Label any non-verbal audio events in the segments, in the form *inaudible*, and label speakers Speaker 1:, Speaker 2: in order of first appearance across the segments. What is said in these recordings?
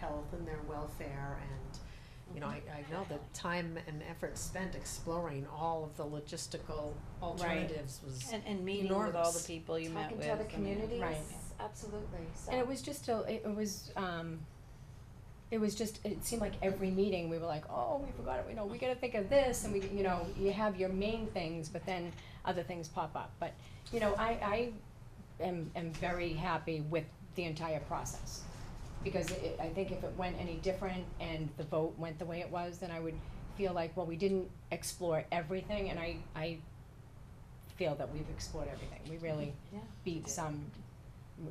Speaker 1: health and their welfare and, you know, I, I know the time and effort spent exploring all of the logistical alternatives was,
Speaker 2: And, and meeting with all the
Speaker 1: Enormous.
Speaker 2: people you met
Speaker 3: Talking
Speaker 2: with.
Speaker 3: to other
Speaker 2: I mean,
Speaker 3: communities,
Speaker 1: Right.
Speaker 3: absolutely, so.
Speaker 4: And it was just a, it it was, um, it was just, it seemed like every meeting, we were like, oh, we forgot it, you know, we gotta think of this, and we, you know, you have your main things, but then other things pop up, but, you know, I, I am, am very happy with the entire process. Because it, I think if it went any different and the vote went the way it was, then I would feel like, well, we didn't explore everything, and I, I feel that we've explored everything, we really
Speaker 3: Yeah.
Speaker 4: beat some,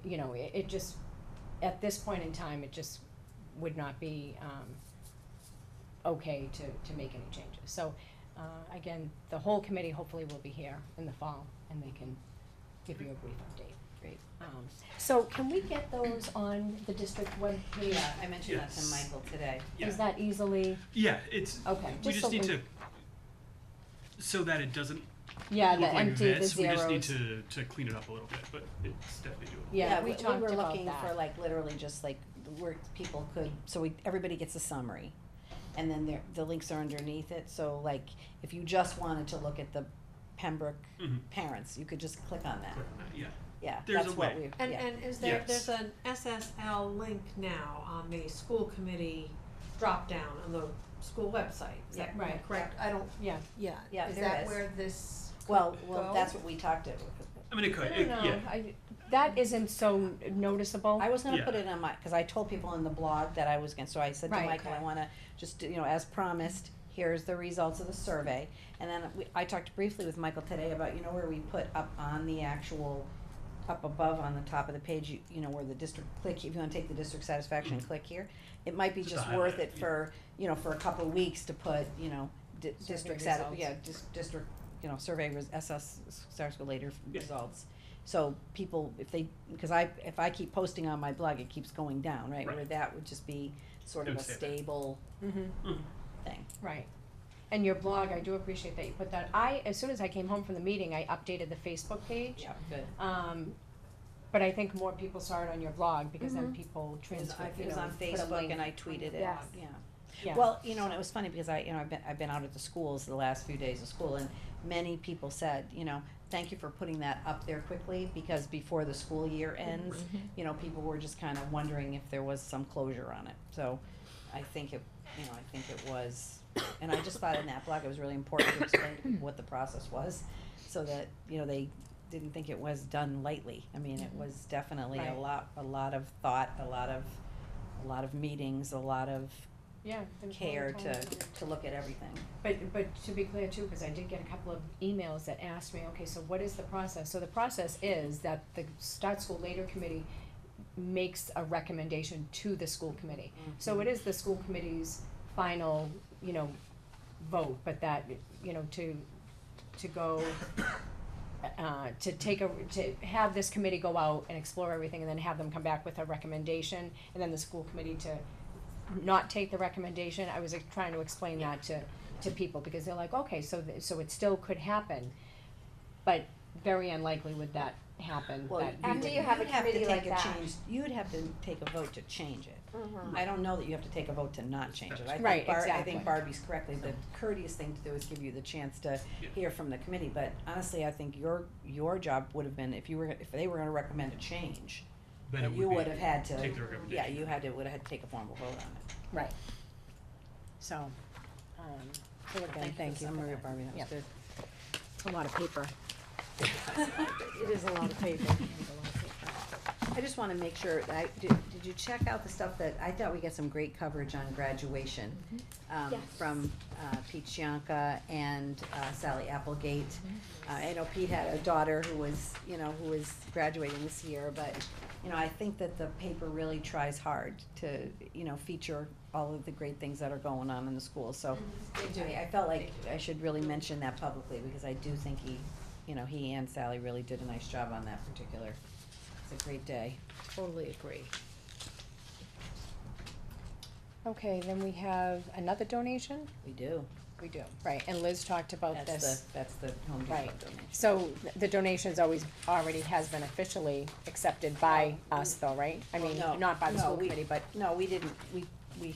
Speaker 4: you know, it, it just, at this point in time, it just would not be, um, okay to, to make any changes. So, uh, again, the whole committee hopefully will be here in the fall, and they can give you a brief update.
Speaker 2: Great.
Speaker 4: Um, so can we get those on the district webpage?
Speaker 2: Yeah, I mentioned that to
Speaker 5: Yes.
Speaker 2: Michael today.
Speaker 5: Yeah.
Speaker 4: Is that easily,
Speaker 5: Yeah, it's,
Speaker 4: okay,
Speaker 5: we
Speaker 4: just so
Speaker 5: just
Speaker 4: we,
Speaker 5: need to, so that it doesn't
Speaker 4: yeah,
Speaker 5: look
Speaker 4: the
Speaker 5: like
Speaker 4: empty, the
Speaker 5: this, we just need
Speaker 4: zeros,
Speaker 5: to, to clean it up a little bit, but it's definitely doable.
Speaker 4: yeah, we
Speaker 2: we,
Speaker 4: talked
Speaker 2: were
Speaker 4: about
Speaker 2: looking for
Speaker 4: that,
Speaker 2: like literally just like where people could, so we, everybody gets a summary. And then there, the links are underneath it, so like if you just wanted to look at the Pembroke
Speaker 5: Mhm.
Speaker 2: parents, you could just click on that.
Speaker 5: Click on that, uh, Yeah,
Speaker 2: Yeah,
Speaker 5: There's
Speaker 2: that's
Speaker 5: a
Speaker 2: what
Speaker 5: way.
Speaker 2: we,
Speaker 1: and,
Speaker 2: yeah,
Speaker 1: and is there,
Speaker 5: Yes.
Speaker 1: there's an SSL link now on the school committee dropdown on the school website, is that
Speaker 4: Yeah. Right.
Speaker 1: correct? I don't,
Speaker 4: yeah.
Speaker 1: yeah,
Speaker 2: Yeah,
Speaker 1: is
Speaker 2: there
Speaker 1: that
Speaker 2: is.
Speaker 1: where this could
Speaker 2: well, well,
Speaker 1: go?
Speaker 2: that's what we talked to.
Speaker 5: I mean, it
Speaker 4: I
Speaker 5: could,
Speaker 4: don't
Speaker 5: it,
Speaker 4: know.
Speaker 5: Uh, yeah,
Speaker 4: I, that isn't so noticeable.
Speaker 2: I was gonna
Speaker 5: Yeah.
Speaker 2: put it on my, cause I told people in the blog that I was gonna, so I said to
Speaker 4: Right.
Speaker 2: Michael, I
Speaker 1: Okay.
Speaker 2: wanna, just, you know, as promised, here's the results of the survey. And then we, I talked briefly with Michael today about, you know, where we put up on the actual, up above on the top of the page, you, you know, where the district, click, if you wanna take the district satisfaction, and click here. It might be
Speaker 5: Just
Speaker 2: just
Speaker 5: to
Speaker 2: worth
Speaker 5: highlight it,
Speaker 2: it
Speaker 5: yeah.
Speaker 2: for, you know, for a couple of weeks to put, you know, di- district sat,
Speaker 4: results.
Speaker 2: yeah, dis- district, you know, survey res- SS, Star School later
Speaker 5: Yeah.
Speaker 2: results. So people, if they, because I, if I keep posting on my blog, it keeps going down, right? Where
Speaker 5: Right.
Speaker 2: that would just be sort of
Speaker 5: It
Speaker 2: a
Speaker 5: would stay there.
Speaker 2: stable
Speaker 4: Mm-hmm.
Speaker 2: thing.
Speaker 4: Right. And your blog, I do appreciate that you put that. I, as soon as I came home from the meeting, I updated the Facebook page.
Speaker 2: Yeah, good.
Speaker 4: Um, but I think more people saw it on your blog because then
Speaker 1: Mhm.
Speaker 4: people
Speaker 2: It was,
Speaker 4: transferred, you
Speaker 2: it Mm-hmm. was
Speaker 4: know,
Speaker 2: on
Speaker 4: put a
Speaker 2: Facebook
Speaker 4: link.
Speaker 2: and I tweeted it,
Speaker 4: Yes.
Speaker 2: yeah.
Speaker 4: Yeah.
Speaker 2: Well, you know, and it was funny because I, you know, I've been, I've been out at the schools the last few days of school and many people said, you know, thank you for putting that up there quickly because before the school year ends,
Speaker 4: Mm-hmm.
Speaker 2: you know, people were just kind of wondering if there was some closure on it. So I think it, you know, I think it was, and I just thought in that blog, it was really important to explain to people what the process was so that, you know, they didn't think it was done lightly. I mean, it was definitely a
Speaker 4: Mm-hmm. Right.
Speaker 2: lot, a lot of thought, a lot of, a lot of meetings, a lot of
Speaker 4: yeah. there was a lot of
Speaker 2: care
Speaker 4: time
Speaker 2: to,
Speaker 4: spent.
Speaker 2: to look at everything.
Speaker 4: But, but to be clear too, because I did get a couple of emails that asked me, okay, so what is the process? So the process is that the Start School Later Committee makes a recommendation to the school committee.
Speaker 1: Mm-hmm.
Speaker 4: So it is the school committee's final, you know, vote, but that, you know, to, to go, uh, to take a, to have this committee go out and explore everything and then have them come back with a recommendation, and then the school committee to not take the recommendation, I was like, trying to explain that to, to people, because they're like, okay, so, th- so it still could happen, but very unlikely would that happen,
Speaker 2: Well,
Speaker 4: that we
Speaker 3: After
Speaker 4: would-
Speaker 3: you have a
Speaker 2: you'd have to
Speaker 3: committee
Speaker 2: take
Speaker 3: like
Speaker 2: a
Speaker 3: that.
Speaker 2: change- You'd have to take a vote to change it.
Speaker 3: Mhm.
Speaker 2: I don't know that you have to take a vote to not change it. I
Speaker 4: Right,
Speaker 2: think Bar- I
Speaker 4: exactly.
Speaker 2: think Barbie's correctly, the courteous thing to do is give you the chance to
Speaker 5: Yeah.
Speaker 2: hear from the committee, but honestly, I think your, your job would have been, if you were, if they were gonna recommend a change,
Speaker 5: then it would be.
Speaker 2: you would have had to,
Speaker 5: Take the
Speaker 2: yeah,
Speaker 5: recommendation.
Speaker 2: you had to, would have had to take a formal vote on it.
Speaker 4: Right.
Speaker 2: So,
Speaker 4: Um, so again,
Speaker 2: thank you for the
Speaker 4: thank you for
Speaker 2: summary,
Speaker 4: that.
Speaker 2: Barbie, that was
Speaker 4: Yep.
Speaker 2: good.
Speaker 4: It's a lot of paper.
Speaker 2: *laughs* It is a lot of paper. I just wanna make sure, that I, did, did you check out the stuff that, I thought we got some great coverage on graduation. Um,
Speaker 3: Yes.
Speaker 2: from, uh, Pete Shianka and uh, Sally Applegate. Uh, I know Pete had a daughter who was, you know, who was graduating this year, but, you know, I think that the paper really tries hard to, you know, feature all of the great things that are going on in the school, so. I, I felt like I should really mention that publicly, because I do think he, you know, he and Sally really did a nice job on that particular, it's a great day.
Speaker 1: Totally agree.
Speaker 4: Okay, then we have another donation?
Speaker 2: We do.
Speaker 4: We do. Right, and Liz talked about
Speaker 2: That's the,
Speaker 4: this.
Speaker 2: that's the Home Depot
Speaker 4: Right.
Speaker 2: donation.
Speaker 4: So th- the donation's always, already has been officially accepted by us though, right? I
Speaker 2: Well,
Speaker 4: mean,
Speaker 2: no.
Speaker 4: not by the
Speaker 2: No,
Speaker 4: school
Speaker 2: we-
Speaker 4: committee, but
Speaker 2: No, we didn't, we, we